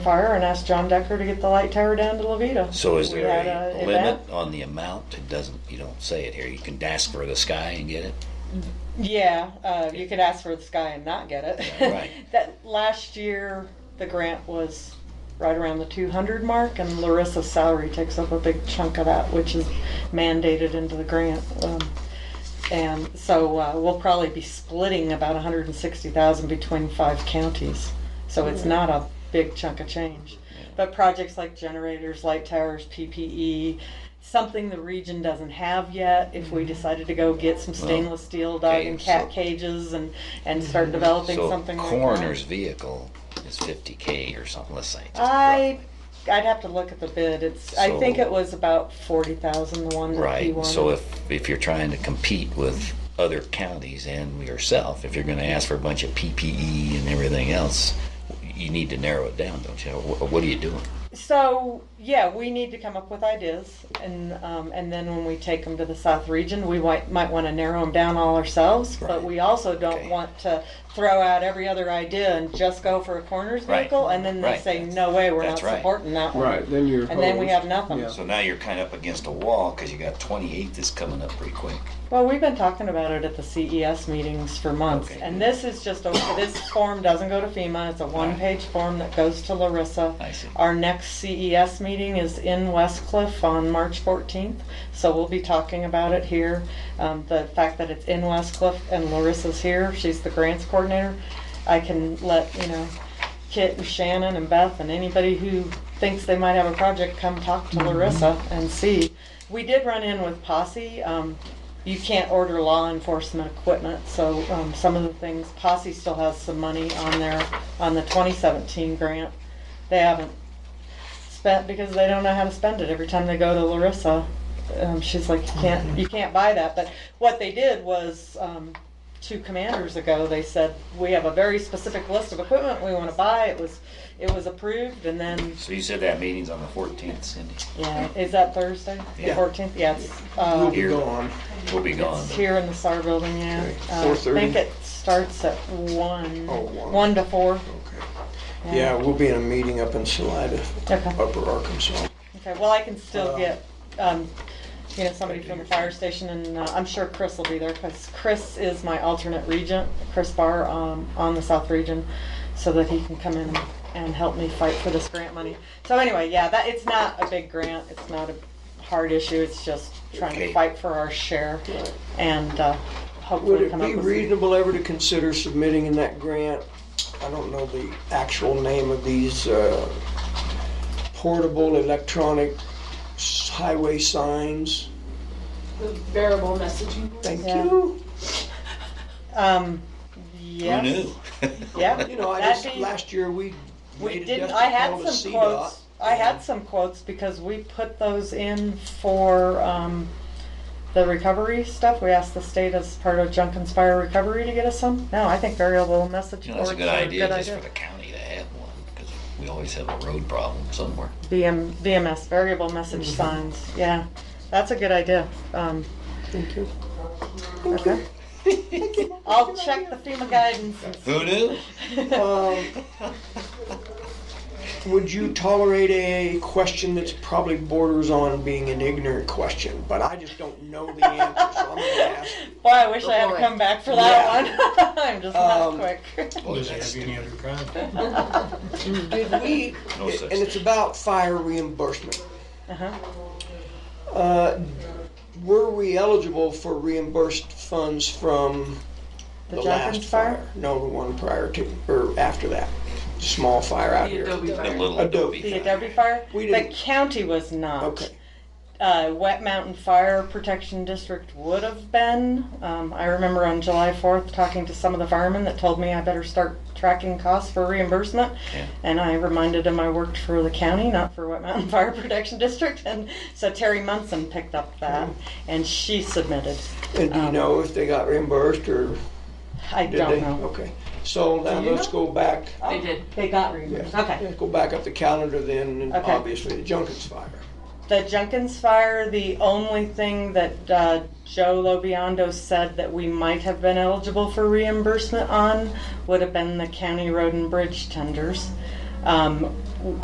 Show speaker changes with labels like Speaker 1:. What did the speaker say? Speaker 1: fire and asked John Decker to get the light tower down to Levita.
Speaker 2: So is
Speaker 1: We
Speaker 2: there
Speaker 1: had
Speaker 2: a
Speaker 1: event.
Speaker 2: limit on the amount? It doesn't, you don't say it here. You can ask for the sky and get it.
Speaker 1: Yeah, uh, you could ask for the sky and not get it.
Speaker 2: Right.
Speaker 1: That, last year, the grant was right around the two hundred mark, and Larissa's salary takes up a big chunk of that, which is mandated into the grant. Um, And so, uh, we'll probably be splitting about hundred and sixty thousand between five counties, so it's not a big chunk of change. But projects like generators, light towers, PPE, something the region doesn't have yet, if we decided to go get some stainless steel dog and
Speaker 2: okay,
Speaker 1: cat
Speaker 2: so- Mm-hmm.
Speaker 1: cages and, and start developing
Speaker 2: So
Speaker 1: something like that.
Speaker 2: coroner's vehicle is 50k or something. Let's say. just
Speaker 1: I,
Speaker 2: roughly.
Speaker 1: I'd have to look at the bid. It's, I think
Speaker 2: So-
Speaker 1: it was about forty thousand, the one that he
Speaker 2: Right. So
Speaker 1: wanted.
Speaker 2: if if you're trying to compete with other counties and yourself, if you're going to ask for a bunch of PPE and everything else, you need to narrow it down, don't you? What, what are you doing?
Speaker 1: So, yeah, we need to come up with ideas and, um, and then when we take them to the South Region, we might, might wanna narrow them down all ourselves. But
Speaker 2: Right.
Speaker 1: we also
Speaker 2: Okay.
Speaker 1: don't want to throw out every other idea and just go for a coroner's
Speaker 2: Right.
Speaker 1: vehicle and then they
Speaker 2: Right.
Speaker 1: say, no way, we're not
Speaker 2: That's right.
Speaker 1: supporting that one.
Speaker 3: Right, then you're.
Speaker 1: And then we have
Speaker 3: opposed.
Speaker 1: nothing.
Speaker 3: Yeah.
Speaker 2: So now you're kind of up against a wall because you got 28 that's coming up pretty quick.
Speaker 1: Well, we've been talking about it at the CES meetings for months,
Speaker 2: Okay.
Speaker 1: and this is just, a this form doesn't go to FEMA, it's a one-page form that goes to Larissa.
Speaker 2: I see.
Speaker 1: Our next CES meeting is in West Cliff on March fourteenth, so we'll be talking about it here. Um, the fact that it's in West Cliff and Larissa's here, she's the grants coordinator, I can let, you know, Kit and Shannon and Beth and anybody who thinks they might have a project, come talk
Speaker 2: Mm-hmm.
Speaker 1: to Larissa and see. We did run in with Posse. Um, you can't order law enforcement equipment, so um, some of the things, Posse still has some money on their, on the 2017 grant. They haven't spent because they don't know how to spend it. Every time they go to Larissa, um, she's like, you can't, you can't buy that. But what they did was, um, two commanders ago, they said, we have a very specific list of equipment we want to buy. It was, it was approved and then,
Speaker 2: So you said that meeting's on the 14th, Cindy.
Speaker 1: yeah, is that Thursday? The
Speaker 2: Yeah.
Speaker 1: fourteenth, yeah, it's, uh,
Speaker 2: Here.
Speaker 3: We'll be gone.
Speaker 2: We'll be gone.
Speaker 1: it's here in the SAR building, yeah.
Speaker 3: Okay.
Speaker 1: Uh, I
Speaker 3: 4:30?
Speaker 1: think it starts at one,
Speaker 3: Oh, one.
Speaker 1: one to four.
Speaker 3: Okay. Yeah, we'll be in a meeting up in Salida,
Speaker 1: Okay.
Speaker 3: Upper Arkansas.
Speaker 1: Okay, well, I can still
Speaker 3: Uh,
Speaker 1: get, um, you know, somebody from the fire station, and uh, I'm sure Chris will be there, because Chris is my alternate regent, Chris Barr, um, on the South Region, so that he can come in and help me fight for this grant money. So anyway, yeah, that, it's not a big grant, it's not a hard issue, it's just trying to
Speaker 2: Okay.
Speaker 1: fight for our share, and uh,
Speaker 3: Would
Speaker 1: hopefully
Speaker 3: it
Speaker 1: come up
Speaker 3: be
Speaker 1: with.
Speaker 3: reasonable ever to consider submitting in that grant? I don't know the actual name of these uh, portable electronic s- highway signs.
Speaker 4: the variable messaging.
Speaker 3: Thank
Speaker 1: Yeah.
Speaker 3: you.
Speaker 1: Um,
Speaker 2: Who
Speaker 1: yes.
Speaker 2: knew?
Speaker 1: Yeah.
Speaker 3: You know, I
Speaker 1: That'd
Speaker 3: just,
Speaker 1: be-
Speaker 3: last year, we
Speaker 1: We
Speaker 3: made a
Speaker 1: didn't,
Speaker 3: desperate
Speaker 1: I had
Speaker 3: call to
Speaker 1: some
Speaker 3: CDOT.
Speaker 1: quotes, I had some quotes because we put those in for, um, the recovery stuff. We asked the state as part of Junkins Fire Recovery to get us some. No, I think variable message
Speaker 2: You know, that's
Speaker 1: boards
Speaker 2: a
Speaker 1: are
Speaker 2: good idea just for the county to have one because we always have a road problem somewhere.
Speaker 1: BM, VMS, variable message
Speaker 2: Mm-hmm.
Speaker 1: signs, yeah. That's a good idea. Um,
Speaker 3: Thank you.
Speaker 1: okay. I'll check the FEMA guidance. and
Speaker 2: Who knew?
Speaker 3: Um, Would you tolerate a question that's probably borders on being an ignorant question, but I just don't know the answer, so I'm gonna ask.
Speaker 1: Boy, I wish I had come back for that one. I'm just not
Speaker 3: Um,
Speaker 1: quick.
Speaker 2: Boy,
Speaker 5: Does it
Speaker 2: that's
Speaker 5: have any other crime?
Speaker 3: Did we,
Speaker 2: No such
Speaker 3: and it's about fire reimbursement.
Speaker 1: Uh-huh.
Speaker 3: Uh, Were we eligible for reimbursed funds from
Speaker 1: The
Speaker 3: the
Speaker 1: Junkins
Speaker 3: last
Speaker 1: fire?
Speaker 3: fire? No, the one prior to, or after that, small fire out here.
Speaker 2: a little
Speaker 3: Adobe.
Speaker 2: Adobe.
Speaker 1: The Adobe fire?
Speaker 3: We
Speaker 1: The
Speaker 3: didn't-
Speaker 1: county was not.
Speaker 3: Okay,
Speaker 1: uh, Wet Mountain Fire Protection District would have been. Um, I remember on July 4th talking to some of the firemen that told me I better start tracking costs for reimbursement.
Speaker 2: Yeah.
Speaker 1: And I reminded them I worked for the county, not for Wet Mountain Fire Protection District. And so Terry Munson picked up that
Speaker 3: Hmm.
Speaker 1: and she submitted.
Speaker 3: and do you
Speaker 1: Um,
Speaker 3: know if they got reimbursed or
Speaker 1: I
Speaker 3: did they? Oh.
Speaker 1: don't know.
Speaker 3: Okay, so now let's go back.
Speaker 1: They did. They got reimbursed.
Speaker 3: Yeah.
Speaker 1: Okay.
Speaker 3: Yeah, Go back up the calendar then, and
Speaker 1: Okay.
Speaker 3: obviously the Junkins fire.
Speaker 1: The Jenkins fire, the only thing that uh, Joe Lobiondo said that we might have been eligible for reimbursement on would have been the county road and bridge tenders. Um,